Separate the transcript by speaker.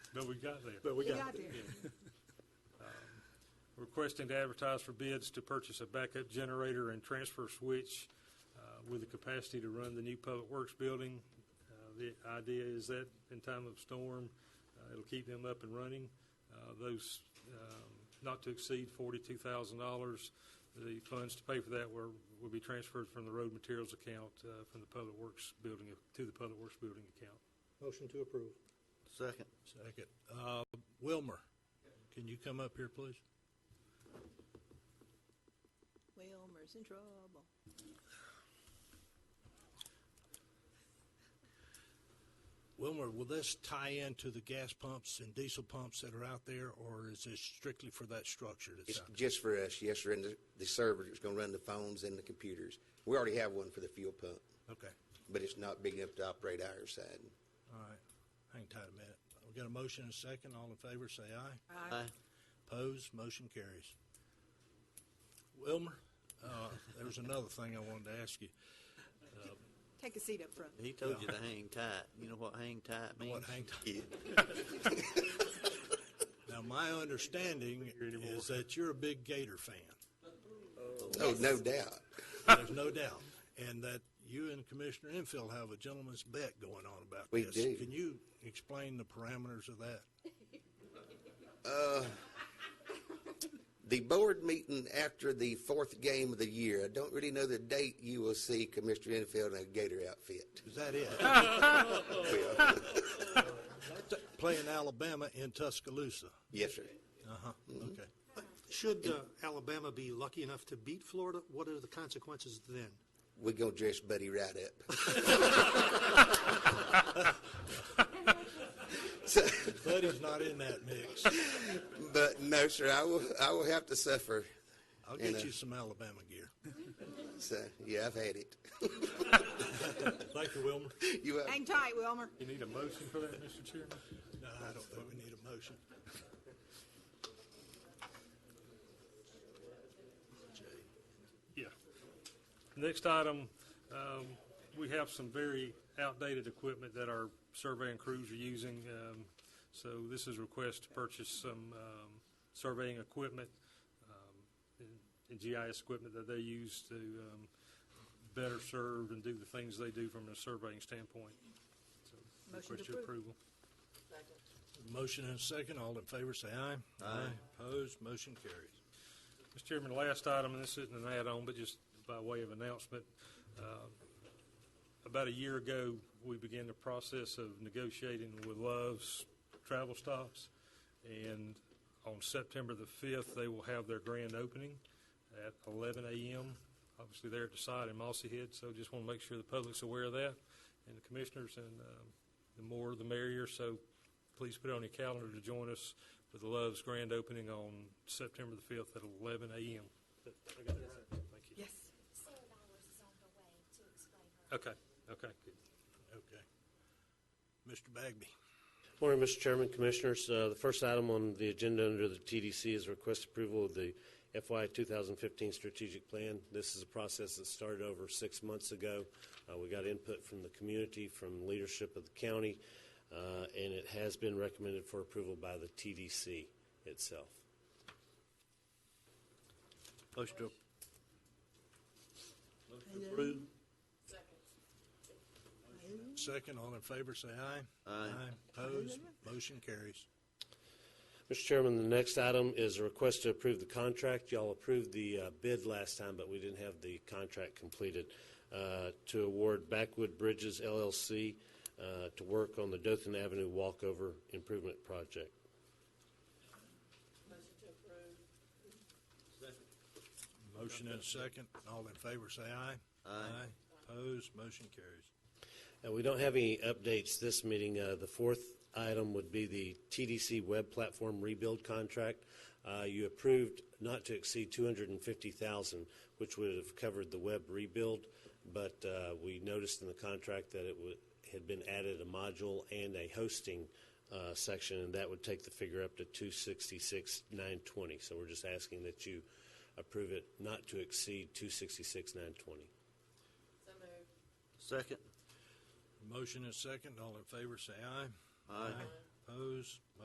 Speaker 1: But we got there. Um,
Speaker 2: But we
Speaker 3: We
Speaker 2: got
Speaker 3: got
Speaker 2: there.
Speaker 1: Requesting to advertise for bids to purchase a backup generator and transfer switch uh, with the capacity to run the new Public Works building. Uh, The idea is that in time of storm, uh, it'll keep them up and running. Uh, Those um, not to exceed forty-two thousand dollars. The funds to pay for that were, will be transferred from the road materials account, uh, from the Public Works building, to the Public Works building account.
Speaker 4: Motion to approve.
Speaker 5: Second.
Speaker 6: Second. Uh, Wilmer, can you come up here, please?
Speaker 3: Wilmer's in trouble.
Speaker 6: Wilmer, will this tie into the gas pumps and diesel pumps that are out there, or is this strictly for that structure that's
Speaker 5: It's
Speaker 6: out there?
Speaker 5: just for us, yes, sir, and the- the server that's going to run the phones and the computers. We already have one for the fuel pump,
Speaker 6: Okay,
Speaker 5: but it's not big enough to operate our side.
Speaker 6: all right. Hang tight a minute. We got a motion and a second. All in favor, say aye.
Speaker 3: Aye.
Speaker 6: Opposed, motion carries. Wilmer, uh, there was another thing I wanted to ask you.
Speaker 3: Take a seat up front.
Speaker 7: He told you to hang tight. You know what hang tight means?
Speaker 6: What hang tight? Now, my understanding is that you're a big Gator fan.
Speaker 5: Oh, no doubt.
Speaker 6: There's no doubt. And that you and Commissioner Infield have a gentleman's bet going on about
Speaker 5: We
Speaker 6: this.
Speaker 5: do.
Speaker 6: Can you explain the parameters of that?
Speaker 5: The board meeting after the fourth game of the year, I don't really know the date you will see Commissioner Enfield in a Gator outfit.
Speaker 6: Is that it? Playing Alabama in Tuscaloosa.
Speaker 5: Yes, sir.
Speaker 6: Uh-huh,
Speaker 5: Mm-hmm.
Speaker 6: okay.
Speaker 4: Should uh, Alabama be lucky enough to beat Florida, what are the consequences then?
Speaker 5: We're going to dress Buddy right up.
Speaker 6: Buddy's not in that mix.
Speaker 5: But no, sir, I will, I will have to suffer.
Speaker 6: I'll
Speaker 5: And,
Speaker 6: get
Speaker 5: uh,
Speaker 6: you some Alabama gear.
Speaker 5: So, yeah, I've had it.
Speaker 6: Thank you, Wilmer.
Speaker 5: You have-
Speaker 3: Hang tight, Wilmer.
Speaker 1: You need a motion for that, Mr. Chairman?
Speaker 6: No, I don't think we need a motion.
Speaker 1: Yeah. Next item, um, we have some very outdated equipment that our surveying crews are using. Um, So this is a request to purchase some um, surveying equipment um, and- and GIS equipment that they use to um, better serve and do the things they do from a surveying standpoint. So,
Speaker 3: Motion to
Speaker 1: Request your
Speaker 3: approve.
Speaker 1: approval.
Speaker 6: Motion and a second. All in favor, say aye. Aye. Opposed, motion carries.
Speaker 1: Mr. Chairman, last item, and this isn't an add-on, but just by way of announcement. uh, About a year ago, we began the process of negotiating with Love's Travel Stops. And on September the 5th, they will have their grand opening at 11 a.m., obviously there at the site in Mossy Head. So just want to make sure the public's aware of that and the commissioners and um, the more the merrier. So please put it on your calendar to join us for the Love's grand opening on September the 5th at 11 a.m. I got that right? Thank you.
Speaker 3: Yes.
Speaker 8: Sarah Bowers is on her way to explain her.
Speaker 1: Okay, okay, good.
Speaker 6: Okay. Mr. Bagby.
Speaker 9: Morning, Mr. Chairman, Commissioners. Uh, The first item on the agenda under the TDC is request approval of the FY 2015 strategic plan. This is a process that started over six months ago. Uh, We got input from the community, from leadership of the county, uh, and it has been recommended for approval by the TDC itself.
Speaker 7: Motion to
Speaker 6: Second, all in favor, say aye.
Speaker 7: Aye.
Speaker 6: Opposed, motion carries.
Speaker 9: Mr. Chairman, the next item is a request to approve the contract. Y'all approved the uh, bid last time, but we didn't have the contract completed. Uh, To award Backwood Bridges LLC uh, to work on the Dothan Avenue Walkover Improvement Project.
Speaker 6: Motion and a second, all in favor, say aye. Aye. Opposed, motion carries.
Speaker 9: And we don't have any updates this meeting. Uh, The fourth item would be the TDC Web Platform Rebuild Contract. Uh, You approved not to exceed 250,000, which would have covered the web rebuild, but uh, we noticed in the contract that it would- had been added a module and a hosting uh, section, and that would take the figure up to 266,920. So we're just asking that you approve it not to exceed 266,920.
Speaker 7: second.
Speaker 6: Motion and second, all in favor, say aye.
Speaker 7: Aye.
Speaker 6: Opposed,